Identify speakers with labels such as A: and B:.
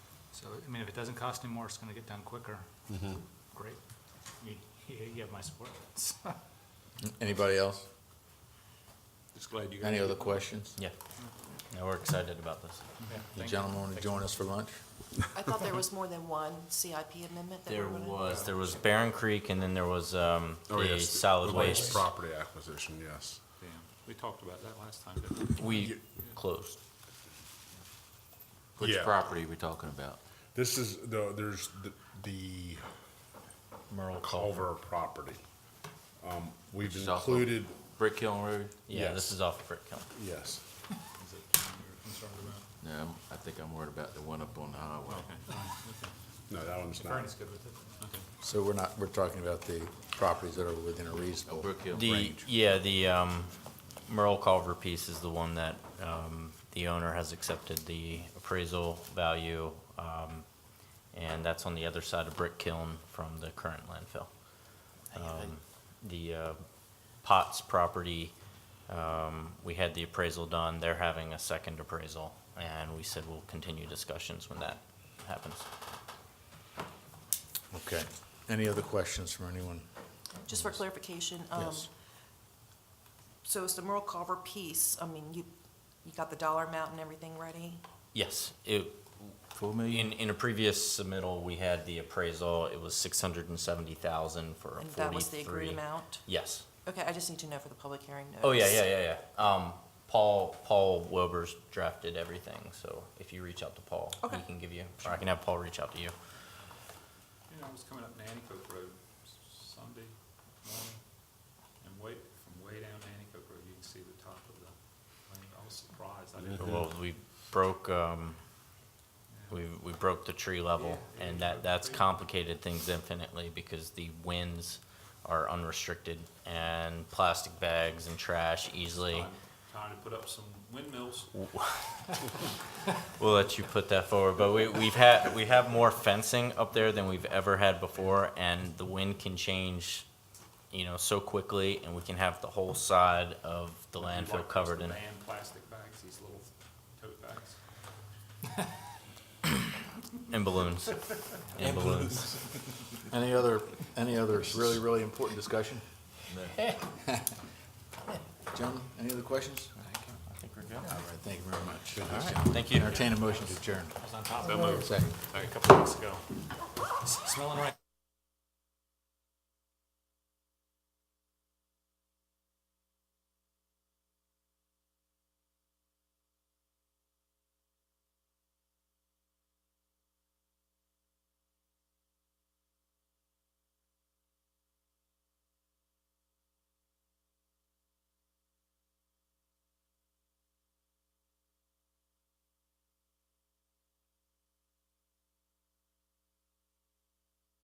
A: So, I mean, if it doesn't cost any more, it's gonna get done quicker.
B: Mm-hmm.
A: Great. You, you have my support.
C: Anybody else?
D: Just glad you guys.
C: Any other questions?
B: Yeah. Yeah, we're excited about this.
A: Yeah,
C: The
A: thank
C: gentleman want to
A: Thank
C: join us for lunch?
E: I thought there was more than one CIP amendment that
B: There
E: we're gonna.
B: was, there was Barron Creek and then there was, um,
D: Oh,
B: the
D: yes,
B: solid
D: the
B: waste.
D: Property acquisition, yes.
A: Yeah, We talked about that last time, didn't we?
B: We closed.
D: Which Yeah. property
C: are we talking about?
D: This is, the there's the, the
B: Merle Culver.
D: Culver property. Um, We've
C: is off of-
D: included,
C: Brick Hill Road?
B: Yeah,
D: Yes.
B: this is off Brick Hill.
D: yes,
A: Is it the one you were concerned about?
C: No, I'm- I think I'm worried about the one up on the highway.
A: Okay, fine,
D: no, that one's
A: okay.
D: not.
A: Vernon's good with it. Okay.
C: So we're not, we're talking about the properties that are within a reasonable. Brick Hill
B: The, yeah, the, um, Merle Culver piece is the one that, um, the owner has accepted the appraisal value. Um, and that's on the other side of Brick Kiln from the current landfill. Um, The, uh, Potts property, um, we had the appraisal done. They're having a second appraisal. And we said we'll continue discussions when that happens.
C: Okay. Any other questions from anyone?
E: Just for clarification, um,
C: Yes.
E: so it's the Merle Carver piece, I mean, you, you got the dollar amount and everything ready?
B: Yes, it,
C: Four million?
B: In, in a previous submittal, we had the appraisal, it was six hundred and seventy thousand for a
E: And
B: forty-three.
E: that was the agreed amount?
B: Yes.
E: Okay, I just need to know for the public hearing notice.
B: Oh, yeah, yeah, yeah, yeah. Um, Paul, Paul Wilbur's drafted everything, so if you reach out to Paul, he
E: Okay.
B: can give you, or I can have Paul reach out to you.
A: You know, I was coming up Nanticoke Road Sunday morning, and way, from way down Nanticoke Road, you can see the top of the lane. I was surprised. I didn't.
B: Well, we broke, um,
A: Yeah.
B: we, we broke the tree level,
A: Yeah,
B: and
A: yeah,
B: that, that's
A: tree.
B: complicated things infinitely because the winds are unrestricted, and plastic bags and trash easily.
A: Trying- Trying to put up some windmills.
B: We'll let you put that forward, but we, we've had, we have more fencing up there than we've ever had before, and the wind can change, you know, so quickly, and we can have the whole side of the landfill covered in.
A: Man, plastic bags, these little tote bags.
B: And balloons. And balloons.
C: Any other, any other really, really important discussion? Gentlemen, any other questions?
B: I think we're good.
C: All right, thank you very much.
B: Thank you.
C: Entertain a motion to adjourn.
A: I was on top of that move
C: Second.
A: like a couple weeks ago. Smelling right.